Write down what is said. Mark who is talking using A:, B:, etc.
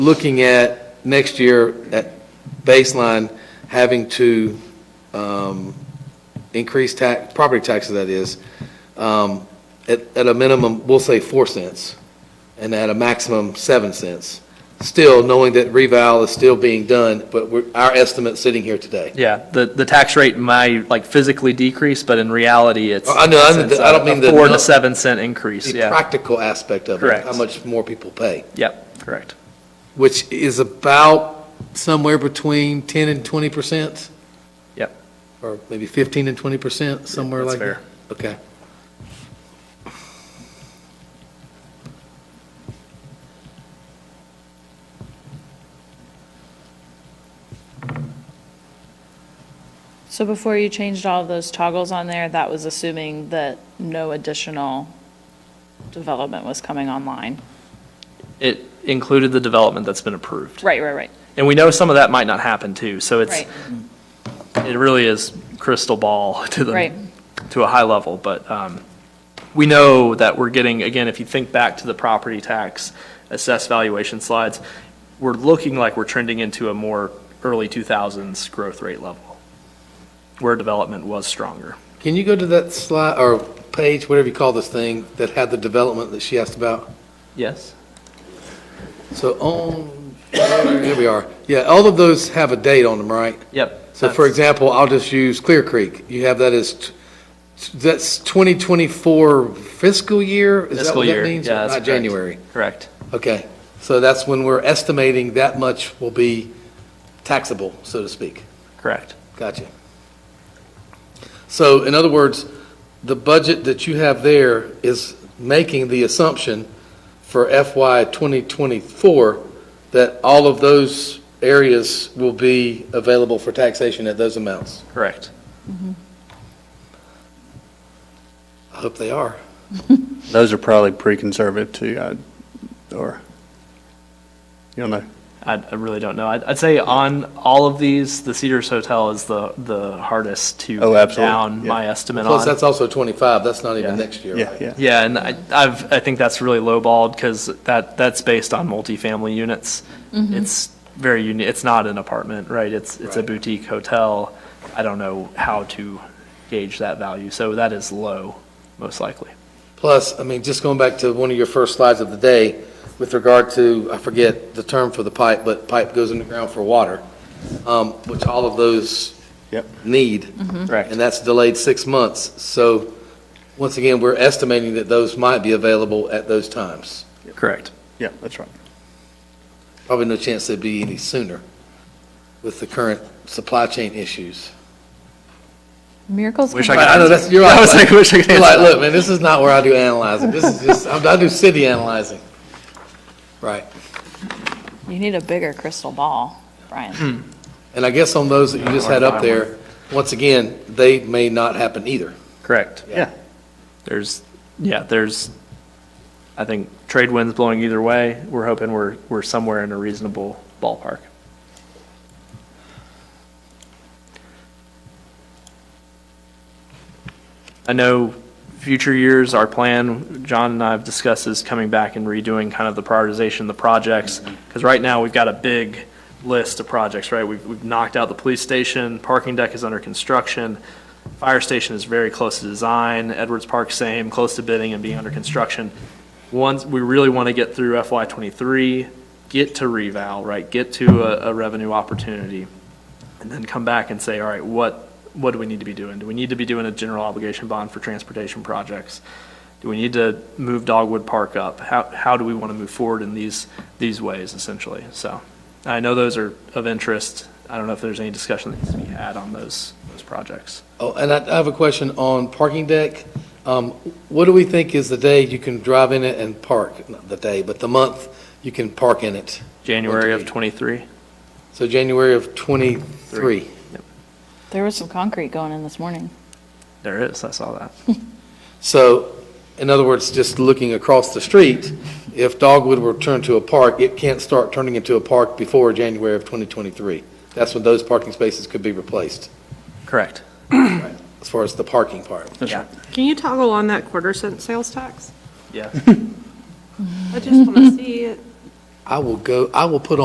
A: looking at next year, at baseline, having to um, increase tax, property taxes, that is, um, at, at a minimum, we'll say 4 cents, and at a maximum, 7 cents. Still, knowing that reval is still being done, but we're, our estimate sitting here today.
B: Yeah, the, the tax rate might like physically decrease, but in reality, it's.
A: Oh, I know, I know,
B: it's
A: I don't
B: a-
A: mean
B: a
A: the
B: Four
A: nu-
B: to seven cent increase,
A: The
B: yeah.
A: practical aspect of it,
B: Correct.
A: how much more people pay,
B: Yep, correct.
A: which is about somewhere between 10 and 20 percent?
B: Yep.
A: Or maybe 15 and 20 percent, somewhere like
B: that's
A: that?
B: fair.
A: Okay.
C: So before you changed all of those toggles on there, that was assuming that no additional development was coming online?
B: It included the development that's been approved.
C: Right, right, right,
B: And we know some of that might not happen too, so it's, Mm-hmm.
C: right.
B: it really is crystal ball to
C: Right.
B: the, to a high level, but, um, we know that we're getting, again, if you think back to the property tax assessed valuation slides, we're looking like we're trending into a more early two thousands growth rate level, where development was stronger.
A: Can you go to that slide, or page, whatever you call this thing, that had the development that she asked about?
B: Yes.
A: So on, here we are. Yeah, all of those have a date on them, right?
B: Yep.
A: So for
B: That's-
A: example, I'll just use Clear Creek. You have that as, t- that's 2024 fiscal year? Is that
B: Fiscal
A: what that
B: year.
A: means?
B: Yeah, that's
A: Not
B: correct.
A: January.
B: Correct.
A: Okay. So that's when we're estimating that much will be taxable, so to speak.
B: Correct.
A: Gotcha. So in other words, the budget that you have there is making the assumption for FY 2024 that all of those areas will be available for taxation at those amounts.
B: Correct.
A: I hope they are.
D: Those are probably pretty conservative too, I- or, you don't know.
B: I, I really don't know. I'd, I'd say on all of these, the Cedars Hotel is the, the hardest to
D: Oh,
B: pin
D: absolutely.
B: down
D: Yeah.
B: my estimate
A: Plus,
B: on.
A: that's also 25, that's not even
B: Yeah.
A: next year,
D: Yeah,
A: right?
D: yeah.
B: Yeah, and I, I've, I think that's really lowballed because that, that's based on multifamily units. It's very unique. It's not an apartment, right? It's, it's a
A: Right.
B: boutique hotel. I don't know how to gauge that value. So that is low, most likely.
A: Plus, I mean, just going back to one of your first slides of the day with regard to, I forget the term for the pipe, but pipe goes in the ground for water, um, which all of those
D: Yep.
A: need.
B: Correct.
A: And that's delayed six months. So once again, we're estimating that those might be available at those times.
B: Correct.
D: Yeah, that's right.
A: Probably no chance they'd be any sooner with the current supply chain issues.
C: Miracles.
B: Wish
C: can
B: I
A: Right, I know,
C: happen.
A: that's, you're right.
B: I was like, wish I could
A: You're
B: answer
A: like,
B: that.
A: look, man, this is not where I do analyzing. This is just, I'm- I do city analyzing. Right.
C: You need a bigger crystal ball, Brian.
A: And I guess on those that you just had up there, once again, they may not happen either.
B: Correct.
D: Yeah.
B: There's, yeah, there's, I think trade winds blowing either way. We're hoping we're, we're somewhere in a reasonable ballpark. I know future years, our plan, John and I have discussed is coming back and redoing kind of the prioritization of the projects. Because right now, we've got a big list of projects, right? We've, we've knocked out the police station, parking deck is under construction. Fire station is very close to design, Edwards Park same, close to bidding and being under construction. Once, we really want to get through FY twenty-three, get to reval, right, get to a, a revenue opportunity, and then come back and say, all right, what, what do we need to be doing? Do we need to be doing a general obligation bond for transportation projects? Do we need to move Dogwood Park up? How, how do we want to move forward in these, these ways essentially? So I know those are of interest. I don't know if there's any discussion that needs to be had on those, those projects.
A: Oh, and I I have a question on parking deck. Um, What do we think is the day you can drive in it and park? Not the day, but the month you can park in it.
B: January of
A: Okay.
B: '23.
A: So January of '23.
C: There was some concrete going in this morning.
B: There is, I saw that.
A: So, in other words, just looking across the street, if Dogwood were turned to a park, it can't start turning into a park before January of 2023. That's when those parking spaces could be replaced,
B: Correct.
A: as far as the parking part.
D: That's right.
E: Can you toggle on that quarter cent sales tax?
B: Yeah.
E: I just want to see it.
A: I- I will go, I will put